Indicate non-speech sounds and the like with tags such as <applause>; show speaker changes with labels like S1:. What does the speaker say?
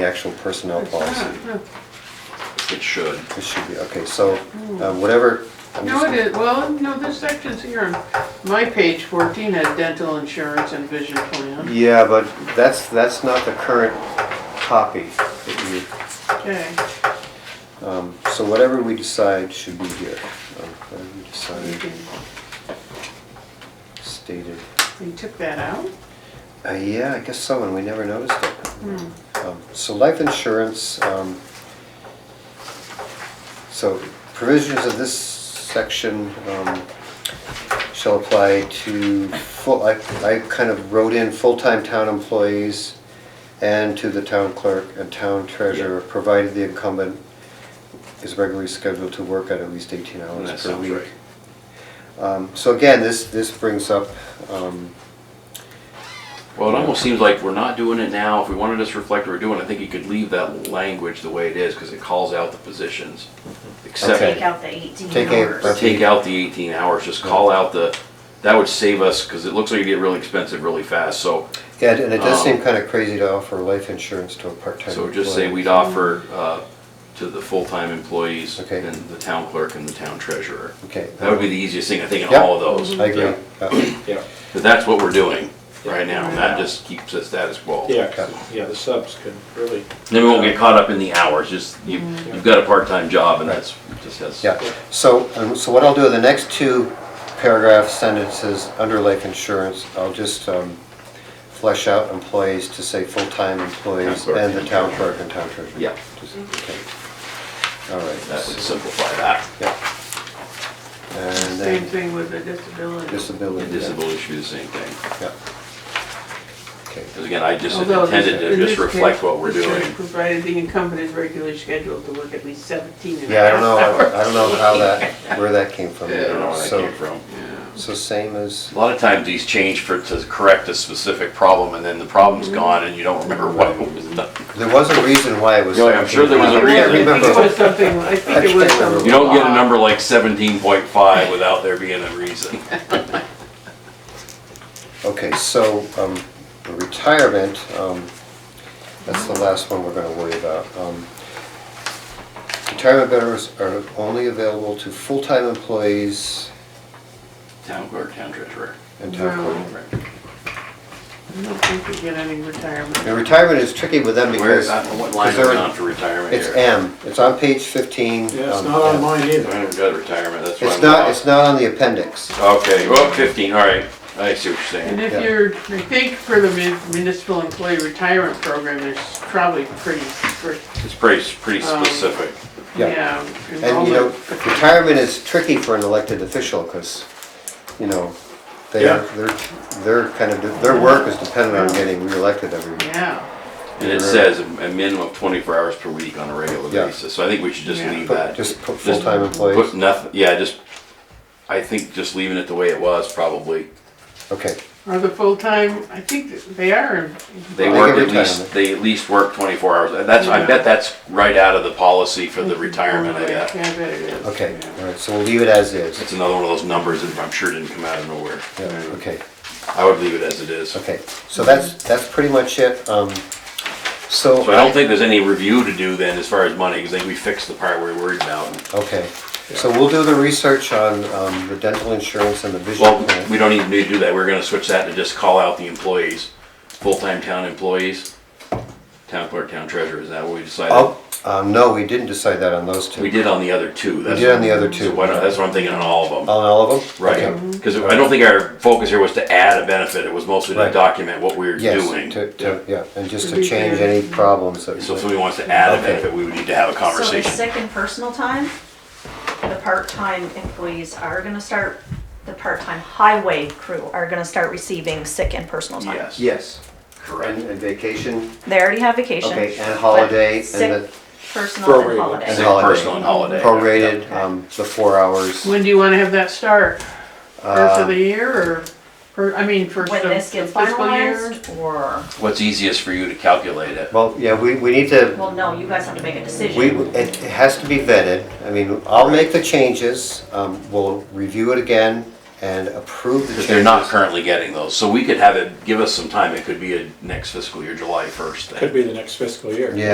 S1: the actual personnel policy.
S2: It should.
S1: It should be, okay, so uh, whatever. I'm
S3: Hmm. No, it
S1: just-
S3: is, well, no, this section's here. My page 14 had dental insurance and vision plan.
S1: Yeah, but that's, that's not the current copy that you. um,
S3: Okay,
S1: So whatever we decide should be here. Um, Whatever we
S3: you
S1: decide
S3: can-
S1: stated.
S3: you took that out?
S1: Uh, Yeah, I guess so, and we never noticed it. Um, So life insurance, um, so provisions of this section um, shall apply to full, I I kind of wrote in full-time town employees and to the town clerk and town treasurer, provided the incumbent is regularly scheduled to work at at least 18
S2: And that
S1: hours per
S2: sounds
S1: week.
S2: right.
S1: Um, So again, this, this brings up, um,
S2: Well, it almost seems like we're not doing it now. If we wanted to just reflect what we're doing, I think you could leave that language the way it is because it calls out the positions.
S1: Okay.
S2: Except,
S4: Take out the eighteen
S1: Take out-
S2: or
S4: hours.
S2: take out the 18 hours, just call out the, that would save us because it looks like it get really expensive really fast. So,
S1: Yeah, and it does seem
S2: Um,
S1: kind of crazy to offer life insurance to a part-time
S2: so
S1: employee.
S2: just say we'd offer uh, to the full-time employees
S1: Okay.
S2: and the town clerk and the town treasurer.
S1: Okay.
S2: That would be the easiest thing, I think, in
S1: Yep.
S2: all of those.
S1: I agree. Yeah.
S5: Yeah,
S2: But that's what we're doing right now. and That just keeps us status quo.
S5: yeah, 'cause, yeah, the subs could really,
S2: Then we won't get caught up in the hours, just, you,
S3: Mm-hmm.
S2: you've got a part-time job and that's, just has.
S1: Yeah, so, um, so what I'll do, the next two paragraph sentences under life insurance, I'll just um, flesh out employees to say full-time employees
S2: Town clerk
S1: and the
S2: and
S1: town
S2: treasurer.
S1: clerk and town treasurer.
S2: Yeah.
S1: Just- okay. All
S2: That would
S1: right.
S2: simplify that.
S1: Yeah. And
S3: Same
S1: then
S3: thing with the disability.
S2: The
S1: disability. yeah,
S2: disability should be the same thing.
S1: Yeah. Okay,
S2: Because again, I just
S3: Although this-
S2: intended to
S3: in
S2: just
S3: this
S2: reflect
S3: case,
S2: what we're
S3: this is
S2: doing.
S3: Provided the incumbent is regularly scheduled to work at least 17 and a
S1: yeah, I don't
S3: half
S1: know, <laughs>
S3: hours.
S1: I don't know how that, where that came from.
S2: Yeah, I don't know where that
S1: So-
S2: came from.
S1: So same as,
S2: A lot of times these change for, to correct a specific problem and then the problem's
S3: Mm-hmm.
S2: gone and you don't remember what was done.
S1: there was a reason why it was.
S2: Yeah, I'm sure there was a
S1: I
S3: I
S2: reason.
S3: think
S1: remember-
S3: it was something, I think it was some.
S2: You don't
S3: Ah.
S2: get a number like seventeen point five without there being a reason. <laughs>
S1: Okay, so um, the retirement, um, that's the last one we're gonna worry about. Um, Retirement benefits are only available to full-time employees
S2: Town clerk, town treasurer.
S1: and town
S3: No.
S1: clerk.
S3: I don't think you get any retirement.
S1: Now, retirement is tricky with them
S2: Where is
S1: because
S2: that, what line is
S1: because
S2: it
S1: they're-
S2: on for retirement
S1: it's
S2: here?
S1: M, it's on page 15.
S5: yeah, it's
S1: um,
S5: not on
S1: M.
S5: mine
S2: I
S5: either.
S2: haven't got retirement, that's why I'm.
S1: It's not,
S2: lost.
S1: it's not on the appendix.
S2: Okay, well, 15, all right. I see what you're
S3: And
S2: saying.
S3: if
S1: Yeah.
S3: you're, I think for the mun- municipal employee retirement program, there's probably pretty, strict,
S2: It's pretty, pretty
S3: Um,
S2: specific.
S1: Yeah.
S3: yeah.
S1: And, you know,
S3: enrollment.
S1: retirement is tricky for an elected official, because, you know, they
S5: Yeah.
S1: are, they're, they're kind of, their work is dependent on getting reelected every year.
S3: Yeah,
S2: And it says a a minimum of 24 hours per week on a regular
S1: Yeah.
S2: basis. So I think we should just
S3: Yeah.
S2: leave
S1: Put-
S2: that.
S1: Just put
S2: Just
S1: full-time
S2: Put
S1: employees,
S2: nothing, yeah, just, I think just leaving it the way it was probably.
S1: okay,
S3: are the full-time, I think that they are.
S2: They
S1: Well, I
S2: work
S1: think
S2: at least,
S1: retirement.
S2: they at least work 24 hours. That's,
S3: Yeah.
S2: I
S3: Mm-hmm.
S2: bet that's right out of the policy for the retirement, I
S3: Yeah,
S2: guess.
S3: I bet it is.
S1: okay,
S3: Yeah.
S1: all right, so we'll leave it as is.
S2: It's another one of those numbers that I'm sure didn't come out of nowhere.
S1: Yeah, okay,
S2: I would leave it as it is.
S1: okay, so that's, that's pretty much it, um, so.
S2: So I don't think there's any review to do then as far as money, because I think we fixed the part we are worried about.
S1: Okay, so we'll do the research on, um, the dental insurance and the vision
S2: Well,
S1: plan.
S2: we don't even need to do that, we're gonna switch that to just call out the employees, full-time town employees, town clerk, town treasurer, is that what we decided?
S1: Oh, um, no, we didn't decide that on those two.
S2: We did on the other two. that's-
S1: did on the other two.
S2: So why not, that's what I'm thinking on all of
S1: On
S2: them,
S1: all of them? Okay.
S2: right? Cause I don't think our focus here was to add a benefit, it was mostly to
S1: Right.
S2: document what we were doing.
S1: Yes, to, to, yeah, and just
S3: To
S1: to
S3: be
S1: change
S3: fair.
S1: any problems that.
S2: So if somebody wants to add a
S1: Okay.
S2: benefit, we would need to have a
S4: So the
S2: conversation.
S4: sick and personal time, the part-time employees are gonna start, the part-time highway crew are gonna start receiving sick and personal time.
S2: Yes,
S1: Yes, and,
S2: correct.
S1: and vacation,
S4: They already have vacation.
S1: okay, and
S4: but
S1: holiday, and
S4: sick,
S1: the
S4: Personal and
S5: Prorated.
S2: Sick,
S1: And
S4: holiday.
S1: holiday.
S2: personal and holiday.
S1: prorated, um, the four hours.
S3: When do you wanna have that start? First
S1: Uh,
S3: of the year or, or, I mean, first of
S4: When
S3: the
S4: this gets
S3: fiscal year?
S4: finalized, or,
S2: What's easiest for you to calculate it?
S1: Well, yeah, we, we need to,
S4: well, no, you guys have to make a
S1: we,
S4: decision.
S1: it it has to be vetted, I mean, I'll make the changes, um, we'll review it again and approve the
S2: Because
S1: changes.
S2: they're not currently getting those, so we could have it, give us some time, it could be a next fiscal year, July first thing.
S5: Could be the next fiscal year.
S1: Yeah,